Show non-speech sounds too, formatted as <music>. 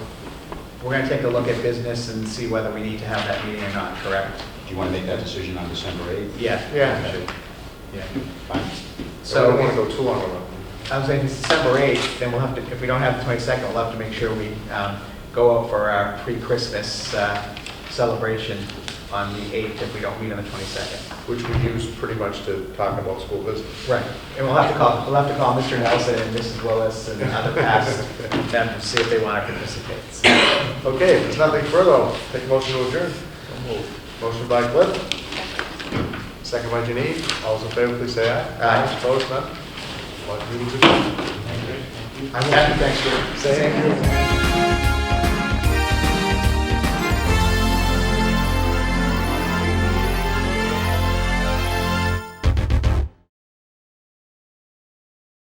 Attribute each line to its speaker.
Speaker 1: We're going to take a look at business and see whether we need to have that meeting or not, correct?
Speaker 2: Do you want to make that decision on December 8th?
Speaker 1: Yeah.
Speaker 3: Yeah.
Speaker 1: Yeah.
Speaker 2: Fine.
Speaker 3: So I don't want to
Speaker 1: So
Speaker 3: go too long around.
Speaker 1: I was saying it's December 8th, then we'll have to, if we don't have the 22nd, we'll have to make sure we um, go out for our pre-Christmas uh, celebration on the 8th if we don't meet on the 22nd.
Speaker 3: which we use pretty much to talk about school business.
Speaker 1: Right, and we'll have to call, we'll have to call Mr. Nelson and Mrs. Willis and other <laughs> past members, see if they want to participate.
Speaker 3: Okay, if there's nothing further, I'll take a motion to adjourn. Motion by Cliff. Second by Janine. All those in favor, please say aye.
Speaker 1: Aye.
Speaker 3: Opposed, none? One, two, three.
Speaker 1: I'm happy, thanks for saying.